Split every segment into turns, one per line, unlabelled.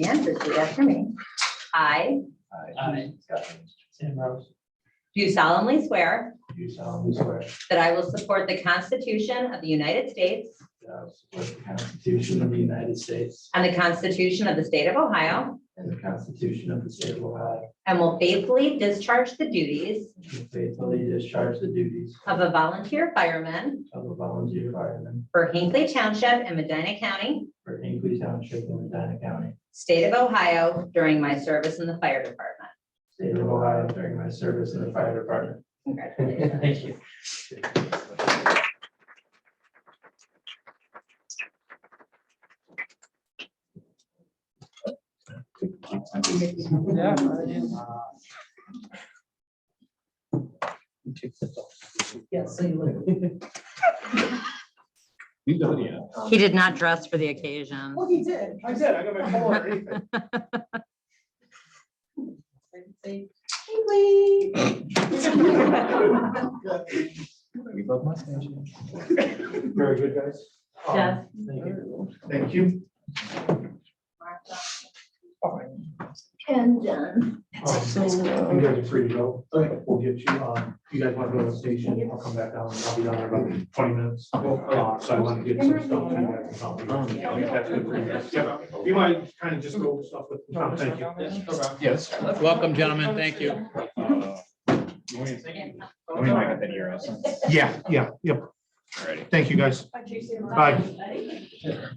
and repeat after me. I
I, Sam Rose,
do solemnly swear
do solemnly swear
that I will support the Constitution of the United States
that I will support the Constitution of the United States
and the Constitution of the State of Ohio,
and the Constitution of the State of Ohio,
and will faithfully discharge the duties
and faithfully discharge the duties
of a volunteer fireman
of a volunteer fireman
for Hinckley Township in Medina County,
for Hinkley Township in Medina County,
State of Ohio, during my service in the fire department.
State of Ohio during my service in the fire department.
Congratulations.
Thank you.
Yeah.
You don't yet.
He did not dress for the occasion.
Well, he did. I did. I got my collar.
We love mustaches.
Very good, guys. Um,
Yes.
Thank you. Thank you.
And done.
Um, You guys are free to go. We'll get you, um, you guys want to go to the station, I'll come back down, and I'll be down there about twenty minutes. Uh, So I want to get some stuff. to you guys. I'll be-
Um,
I'll get that to the three guys. Yeah. You might kind of just go with stuff with, Tom, thank you.
Yes.
Welcome, gentlemen. Thank you.
We might have been here also.
Yeah, yeah, yep.
Alrighty.
Thank you, guys. Bye.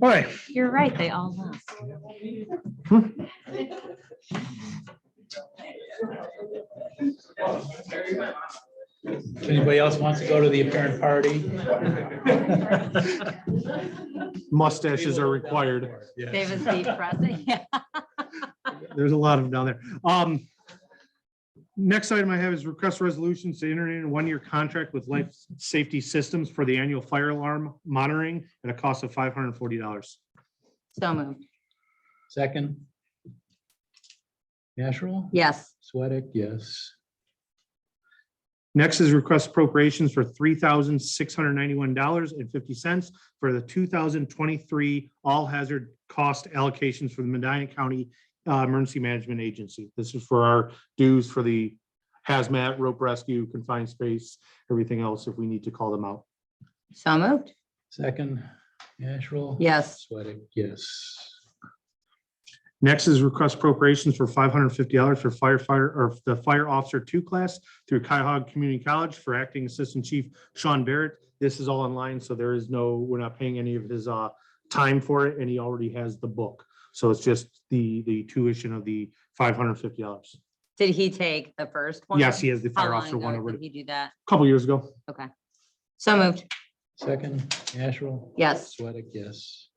All right.
You're right, they all left.
If anybody else wants to go to the apparent party.
mustaches are required.
Dave is depressing. Yeah.
There's a lot of them down there. Um, next item I have is request resolutions to enter in a one-year contract with Life Safety Systems for the annual fire alarm monitoring at a cost of five hundred and forty dollars.
So moved.
Second. Asherle,
Yes.
Sweattick, yes.
Next is request appropriations for three thousand six hundred ninety-one dollars and fifty cents for the two thousand twenty-three all-hazard cost allocations for the Medina County uh, Emergency Management Agency. This is for our dues for the hazmat, rope rescue, confined space, everything else if we need to call them out.
So moved.
Second, Asherle.
Yes.
Sweattick, yes.
Next is request appropriations for five hundred and fifty dollars for firefighter or the fire officer two class through Cuyahoga Community College for acting assistant chief Sean Barrett. This is all online, so there is no, we're not paying any of his uh time for it, and he already has the book. So it's just the the tuition of the five hundred and fifty dollars.
Did he take the first one?
Yes, he has the
How
fire
long
officer one
ago
over
did
a
he do that?
couple years ago.
So moved.
Second, Asherle.
Yes.
Sweattick, yes.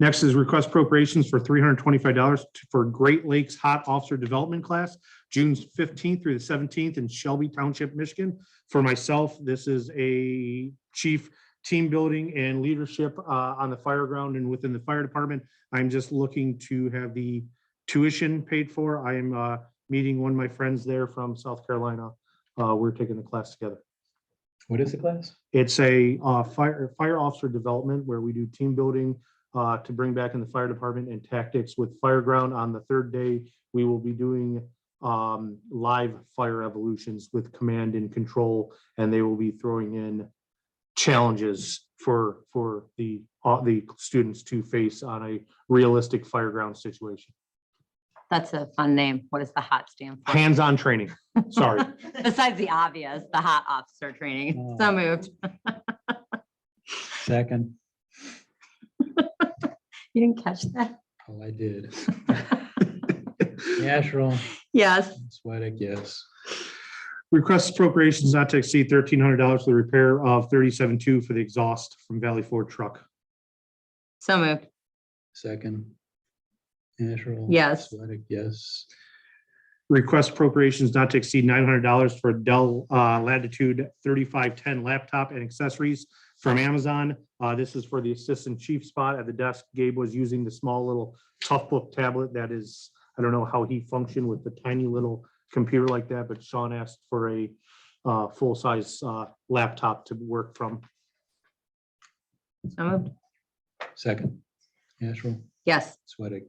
Next is request appropriations for three hundred twenty-five dollars for Great Lakes Hot Officer Development Class, June fifteenth through the seventeenth in Shelby Township, Michigan. For myself, this is a chief team building and leadership uh, on the fire ground and within the fire department. I'm just looking to have the tuition paid for. I am uh, meeting one of my friends there from South Carolina. Uh, We're taking the class together.
What is the class?
It's a uh, fire, fire officer development where we do team building uh, to bring back in the fire department and tactics with Fireground. On the third day, we will be doing um, live fire evolutions with command and control, and they will be throwing in challenges for, for the, uh, the students to face on a realistic Fireground situation.
That's a fun name. What does the hot stand for?
Hands-on training, sorry.
Besides the obvious, the hot officer training. So
Oh.
moved.
Second,
You didn't catch that?
oh, I did. Asherle,
Yes.
Sweattick, yes.
Request appropriations not to exceed thirteen hundred dollars for the repair of thirty-seven two for the exhaust from Valley Ford truck.
So moved.
Second. Asherle.
Yes.
Sweattick, yes.
Request appropriations not to exceed nine hundred dollars for Dell uh, Latitude thirty-five ten laptop and accessories from Amazon. Uh, This is for the assistant chief spot at the desk. Gabe was using the small little tough book tablet that is, I don't know how he functioned with the tiny little computer like that, but Sean asked for a uh, full-size uh, laptop to work from.
So moved.
Second. Asherle,
Yes.
Sweattick,